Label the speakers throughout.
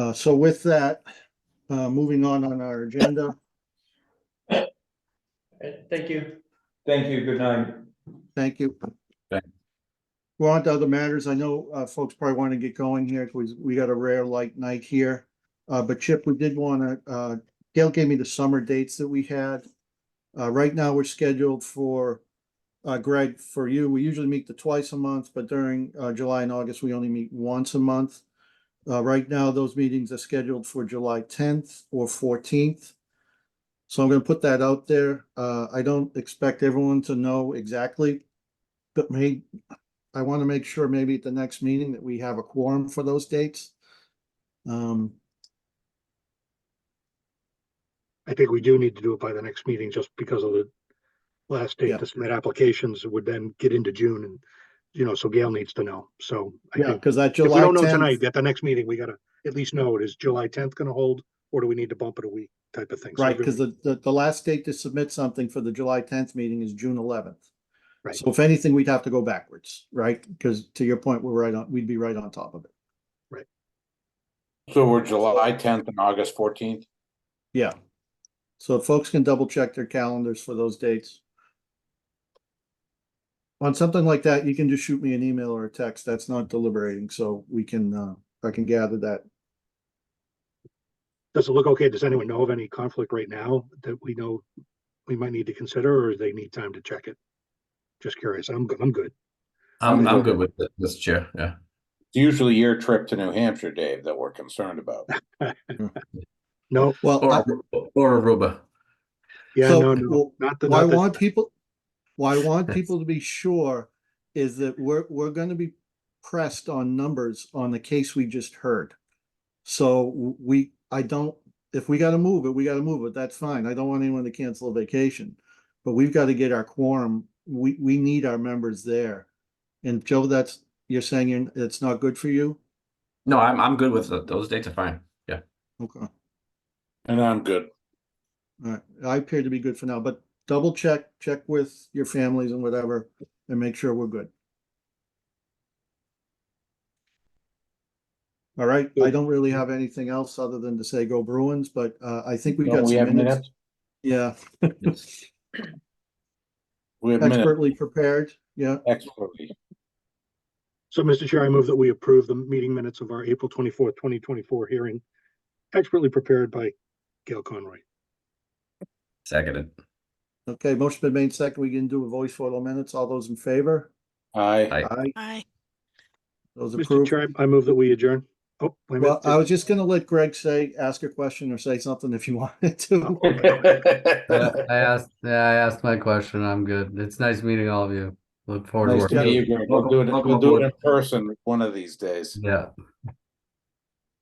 Speaker 1: Uh, so with that, uh, moving on on our agenda,
Speaker 2: Alright, Thank you.
Speaker 3: Thank you, good night.
Speaker 1: thank you. We're on to other matters. I know, uh, folks probably want to get going here because we got a rare light night here. Uh, but Chip, we did want to, uh, Gail gave me the summer dates that we had. Uh, right now, we're scheduled for, uh, Greg, for you, we usually meet the twice a month, but during, uh, July and August, we only meet once a month. Uh, right now, those meetings are scheduled for July tenth or fourteenth. So I'm gonna put that out there. Uh, I don't expect everyone to know exactly, but may, I want to make sure maybe at the next meeting that we have a quorum for those dates. Um,
Speaker 4: I think we do need to do it by the next meeting just because of the last
Speaker 1: Yeah.
Speaker 4: date to submit applications would then get into June and, you know, so Gail needs to know. So I
Speaker 1: yeah,
Speaker 4: think
Speaker 1: because that
Speaker 4: if we
Speaker 1: July
Speaker 4: don't know tonight,
Speaker 1: tenth,
Speaker 4: at the next meeting, we gotta at least know, is July tenth gonna hold? Or do we need to bump it a week type of thing? So
Speaker 1: right,
Speaker 4: everyone-
Speaker 1: because the, the, the last date to submit something for the July tenth meeting is June eleventh.
Speaker 4: Right.
Speaker 1: So if anything, we'd have to go backwards, right? Because to your point, we're right on, we'd be right on top of it.
Speaker 5: So we're July tenth and August fourteenth?
Speaker 1: Yeah. So if folks can double check their calendars for those dates. On something like that, you can just shoot me an email or a text. That's not deliberating, so we can, uh, I can gather that.
Speaker 4: Does it look okay? Does anyone know of any conflict right now that we know we might need to consider or they need time to check it? Just curious. I'm, go- I'm good.
Speaker 6: I'm I'm good with it, Mr. Chair. Yeah.
Speaker 5: It's usually your trip to New Hampshire, Dave, that we're concerned about.
Speaker 4: No,
Speaker 1: Well, I-
Speaker 6: Or or Aruba.
Speaker 4: yeah,
Speaker 1: So,
Speaker 4: no, no,
Speaker 1: well,
Speaker 4: not the,
Speaker 1: Why I
Speaker 4: not the-
Speaker 1: want people, why I want people to be sure is that we're, we're gonna be pressed on numbers on the case we just heard. So w- we, I don't, if we gotta move it, we gotta move it, that's fine. I don't want anyone to cancel a vacation. But we've gotta get our quorum, we, we need our members there. And Joe, that's, you're saying you're- it's not good for you?
Speaker 6: No, I'm I'm good with it. Those dates are fine. Yeah.
Speaker 1: Okay.
Speaker 5: And I'm good.
Speaker 1: Alright, I appear to be good for now, but double check, check with your families and whatever, and make sure we're good. Alright, I
Speaker 3: Good.
Speaker 1: don't really have anything else other than to say go Bruins, but uh, I think we
Speaker 5: Don't
Speaker 1: got
Speaker 5: We have
Speaker 1: some minutes.
Speaker 5: minutes,
Speaker 1: Yeah,
Speaker 6: Yes.
Speaker 5: we have minutes
Speaker 1: expertly prepared, yeah,
Speaker 5: expertly.
Speaker 4: So, Mr. Chair, I move that we approve the meeting minutes of our April twenty-fourth, twenty twenty-four hearing expertly prepared by Gail Conroy.
Speaker 6: Seconded.
Speaker 1: okay, motion been made second, we can do a voice vote on minutes, all those in favor?
Speaker 5: I,
Speaker 6: Aye.
Speaker 1: Aye,
Speaker 7: Aye.
Speaker 1: those
Speaker 4: Mr.
Speaker 1: approved.
Speaker 4: Chair, I I move that we adjourn. Oh, wait a
Speaker 1: Well,
Speaker 4: minute.
Speaker 1: I was just gonna let Greg say, ask a question or say something if you wanted to.
Speaker 6: Uh,
Speaker 5: I.
Speaker 8: I asked, yeah, I asked my question. I'm good. It's nice meeting all of you. Look forward to
Speaker 1: Nice
Speaker 8: working.
Speaker 1: to meet
Speaker 8: with you.
Speaker 5: We'll do it,
Speaker 6: Welcome
Speaker 5: we'll do it in
Speaker 6: aboard.
Speaker 5: person one of these days.
Speaker 8: Yeah.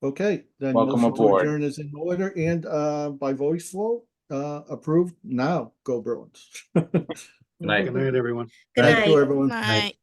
Speaker 1: Okay, then
Speaker 5: Welcome
Speaker 1: motion to
Speaker 5: aboard.
Speaker 1: adjourn is in order and uh by voice vote, uh approved now, go Bruins.
Speaker 6: Good night.
Speaker 4: Good night, everyone.
Speaker 1: Thank you, everyone.
Speaker 7: Night.